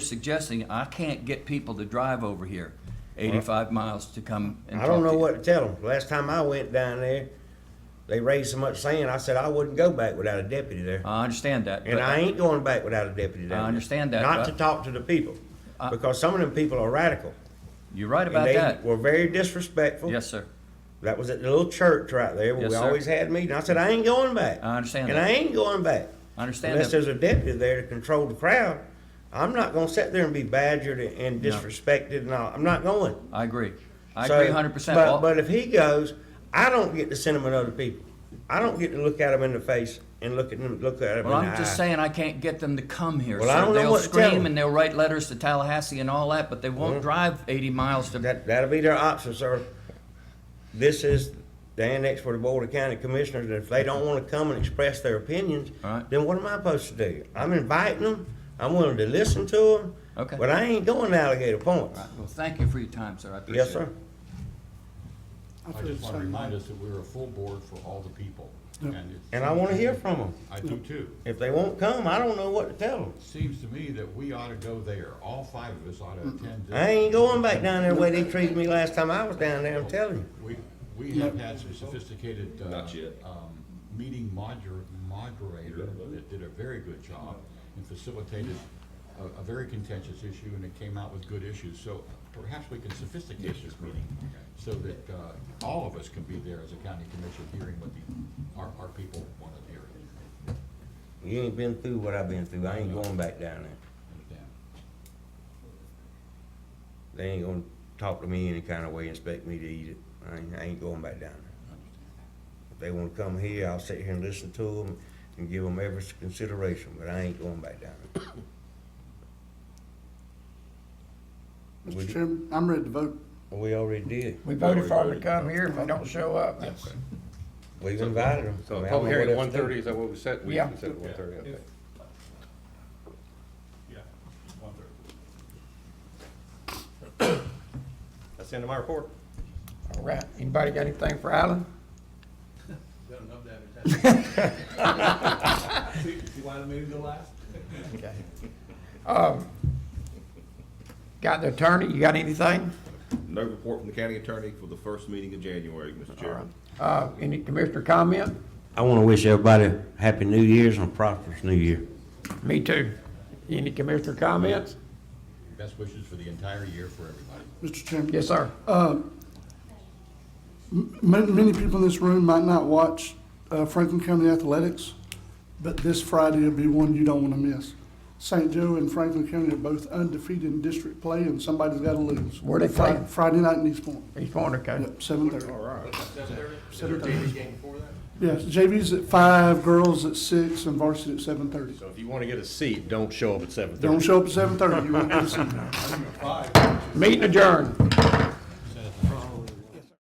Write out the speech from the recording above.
suggesting, I can't get people to drive over here eighty-five miles to come and I talk don't know to you. what to tell them. Last time I went down there, they raised so much sand, I said I wouldn't go back without a deputy there. I understand that. And but- I ain't going back without a deputy down there. understand that, Not but- to talk to the people, I- because some of them people are radical. You're right and about they that. Were very disrespectful. Yes, sir. That was at the little church right there where Yes, we sir. always had meetings. I said, I ain't going back. I understand And that. I ain't going back. I understand Unless that. there's a deputy there to control the crowd, I'm not gonna sit there and be badgered and disrespected and all. I'm not going. I agree. I So, agree hundred percent. But, but if he goes, I don't get to send him another people. I don't get to look at him in the face and look at him, look at him Well, in I'm the just eye. saying I can't get them to come here. Well, sir. I don't know they'll what to tell scream them. Mm-hmm. and they'll write letters to Tallahassee and all that, but they won't drive 80 miles to. That, that'll be their option, sir. This is the annex for the Board of County Commissioners, and if they don't wanna come and express their opinions, All right. then what am I supposed to do? I'm inviting them, I'm willing to listen to them. Okay. But I ain't going to Alligator Point. well, thank you for your time, sir. I appreciate Yes, sir. it. I just want to remind us that we're a full board for all the people. And it's- And I wanna hear from them. I do too. If they won't come, I don't know what to tell them. Seems to me that we ought to go there. All five of us ought to attend. this. I ain't going back down there the way they treated me last time I was down there, I'm telling you. We, we have had some sophisticated. uh, Not yet. um, Meeting moder- moderator that did a very good job and facilitated a, a very contentious issue and it came out with good issues. So perhaps we can sophisticate this meeting so that uh, all of us can be there as a county commission hearing what the, our, our people want to hear. You ain't been through what I've been through. I ain't going back down there. Understand? They ain't gonna talk to me any kind of way, expect me to eat it. I ain't, I ain't going back down there. If they wanna come here, I'll sit here and listen to them and give them every consideration, but I ain't going back down there. Would Mr. you- Chairman, I'm ready to vote. We already did. We voted for them to come here if they don't show up. We've invited them. So public hearing at one thirty, is that what we set? We Yeah. set at one thirty, okay. Yeah, one third. That's the end of my report. All right, anybody got anything for Alan? Done enough damage. See, see why I made it go last? Okay. Um, Got the attorney, you got anything? No report from the county attorney for the first meeting of January, Mr. Chair. Uh, any commissioner comment? I wanna wish everybody Happy New Year's and a prosperous New Year. Me too. Any commissioner comments? Best wishes for the entire year for everybody. Mr. Chairman, Yes, sir. many, many people in this room might not watch uh, Franklin County Athletics, but this Friday will be one you don't want to miss. St. Joe and Franklin County are both undefeated in district play, and somebody's got to lose. Where they Fri- playing? Friday night in East Point. He's pointing, okay. Yep, seven thirty. Is there a TV game before that? Yes, JV's at five, girls at six, and varsity at seven thirty. So if you want to get a seat, don't show up at seven Don't show up at seven thirty, you won't get a seat. Meeting adjourned.